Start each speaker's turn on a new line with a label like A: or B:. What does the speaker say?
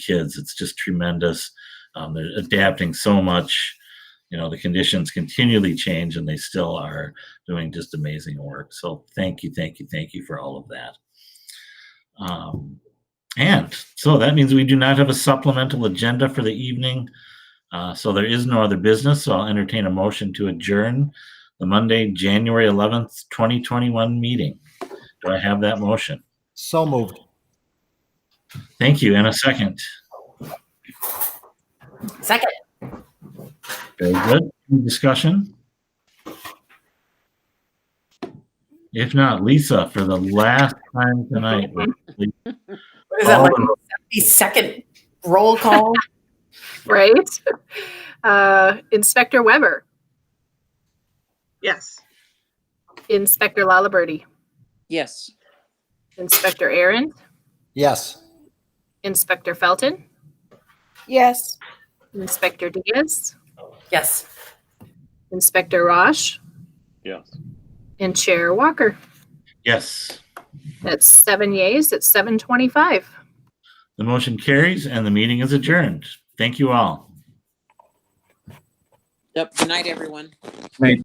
A: kids. It's just tremendous. Um, they're adapting so much. You know, the conditions continually change and they still are doing just amazing work. So thank you, thank you, thank you for all of that. Um, and so that means we do not have a supplemental agenda for the evening. Uh, so there is no other business. So I'll entertain a motion to adjourn the Monday, January 11th, 2021 meeting. Do I have that motion?
B: So moved.
A: Thank you. And a second.
C: Second.
A: Very good. Any Discussion? If not, Lisa, for the last time tonight.
C: What is that
A: all
C: like?
A: of-
C: The second roll call?
D: right? Uh, Inspector Weber,
E: Yes.
D: Inspector Lalaberty,
E: Yes.
D: Inspector Aaron,
B: Yes.
D: Inspector Felton,
F: Yes.
D: Inspector Diaz,
C: Yes.
D: Inspector Roche,
G: Yes.
D: and Chair Walker.
A: Yes,
D: That's seven yeas at 725.
A: the motion carries and the meeting is adjourned. Thank you all.
E: Yep. Good night, everyone.